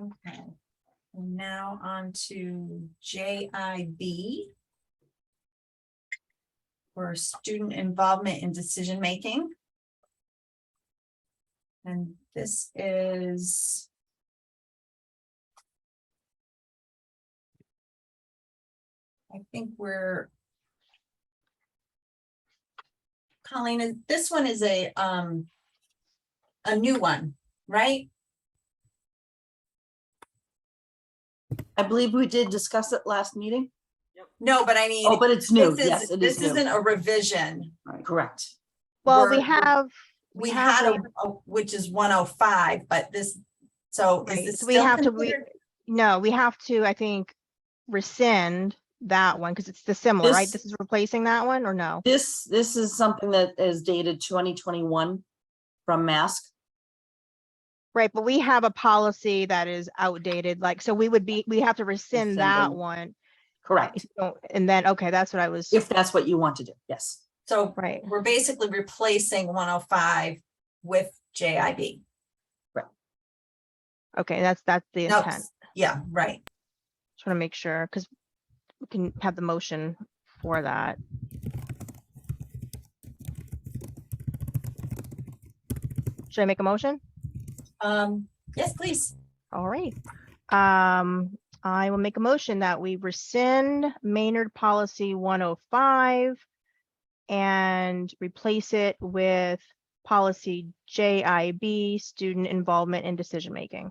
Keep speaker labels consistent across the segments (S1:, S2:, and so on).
S1: Okay. And Now on to J I B. For student involvement in decision making. And this is. I think we're. Colleen, is- this one is a, um. A new one, right?
S2: I believe we did discuss it last meeting.
S1: No, but I mean.
S2: Oh, but it's new.
S1: this
S2: Yes,
S1: is-
S2: it is
S1: This
S2: new.
S1: isn't a revision.
S2: Correct.
S3: Well, we
S1: We're-
S3: have,
S1: We
S3: We have
S1: had a, a- which is one oh five, but this, so is
S3: Right,
S1: this
S3: so we
S1: still
S3: have to re-
S1: considered-
S3: no, we have to, I think, rescind that one because it's the similar, right?
S2: This-
S3: This is replacing that one or no?
S2: This, this is something that is dated twenty twenty-one from mask.
S3: Right, but we have a policy that is outdated, like, so we would be, we have to rescind
S2: Rescind
S3: that
S2: them.
S3: one. if
S2: Correct.
S3: you don't- And then, okay, that's what I was,
S2: If that's what you want to do. Yes.
S1: So
S3: right,
S1: we're basically replacing one oh five with J I B.
S3: okay, that's, that's the intent. Just
S1: Yeah, right.
S3: want to make sure, because we can have the motion for that. Should I make a motion?
S1: Um, yes, please.
S3: All right. Um, I will make a motion that we rescind Maynard Policy one oh five and replace it with policy JIB, student involvement in decision making.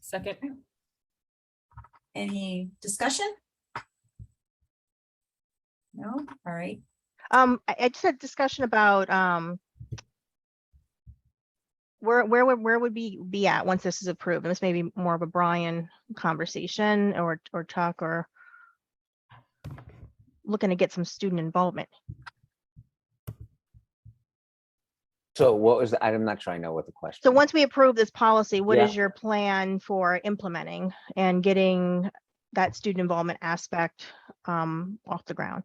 S4: Second,
S1: Any discussion? No, all right.
S3: Um, I, I just had discussion about, um, where, where, would- where would we be at once this is approved? And this may be more of a Brian conversation or, or Chuck or looking to get some student involvement.
S5: So what was, the- I'm not sure I know what the question.
S3: So
S5: is.
S3: once we approve this policy, what
S5: Yeah.
S3: is your plan for implementing and getting that student involvement aspect um, off the ground?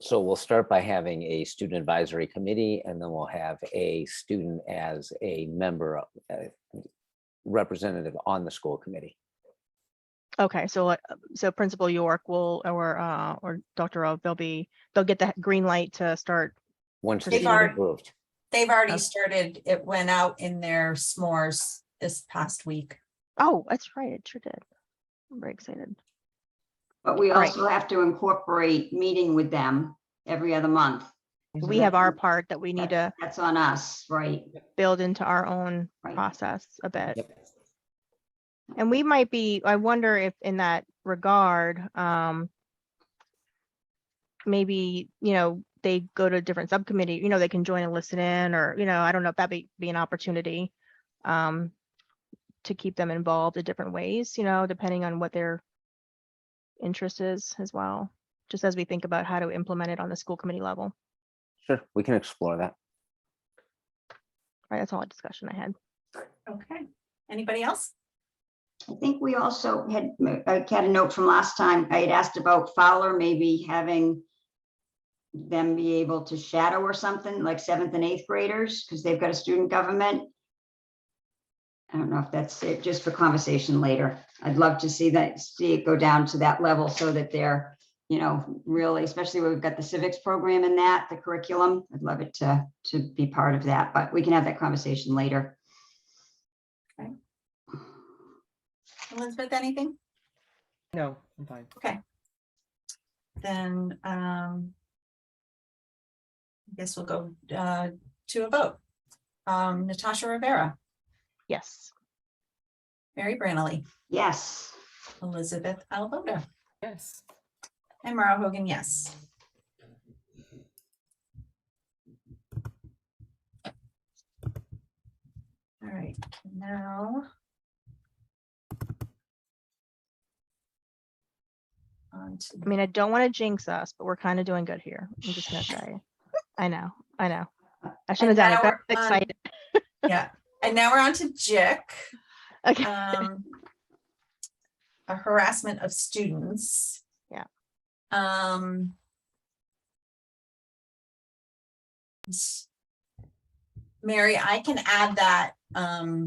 S5: So we'll start by having a student advisory committee and then we'll have a student as a member, of- uh, representative on the school committee.
S3: Okay, so uh, so Principal York will or uh, or Dr. O, they'll be they'll get that green light to start.
S5: Once
S3: They've
S5: this is
S1: already-
S5: approved.
S1: They've already
S3: Okay.
S1: started, it went out in their smores this past week.
S3: Oh, that's right, it sure did. I'm very excited.
S6: But we
S3: Right.
S6: also have to incorporate meeting with them every other month.
S3: We have our part that we need to
S6: That's on us, right?
S3: build into our own
S6: Right.
S3: process a bit.
S5: Yep.
S3: And we might be, I wonder if in that regard, um, maybe, you know, they go to a different subcommittee, you know, they can join and listen in, or, you know, I don't know if that'd be, be an opportunity, um, to keep them involved in different ways, you know, depending on what their interest is as well, just as we think about how to implement it on the school committee level.
S5: Sure, we can explore that.
S3: Right, that's all the discussion I had.
S1: Okay. Anybody else?
S6: I think we also had, I had a note from last time, I had asked about Fowler maybe having them be able to shadow or something, like seventh and eighth graders, because they've got a student government. I don't know if that's it, just for conversation later. I'd love to see that, see it go down to that level so that they're, you know, really, especially where we've got the civics program in that, the curriculum. I'd love it to, to be part of that, but we can have that conversation later.
S1: Elizabeth, anything?
S7: No, I'm fine.
S1: Then, um. I guess we'll go, uh, to a vote. Um, Natasha Rivera,
S3: Yes.
S1: Mary Branley,
S6: Yes.
S1: Elizabeth Albota,
S4: yes.
S1: and Mara Hogan, yes. All right, now. On to
S3: I mean, I don't want to jinx us, but we're kind of doing good here. I'm just gonna say. I know, I know. I shouldn't have done
S1: now
S3: it. but
S1: we're
S3: I'm
S1: on-
S3: excited.
S1: Yeah, and now we're on to Jick.
S3: Okay.
S1: um, a harassment of students.
S3: Yeah.
S1: Um. s- Mary, I can add that, um,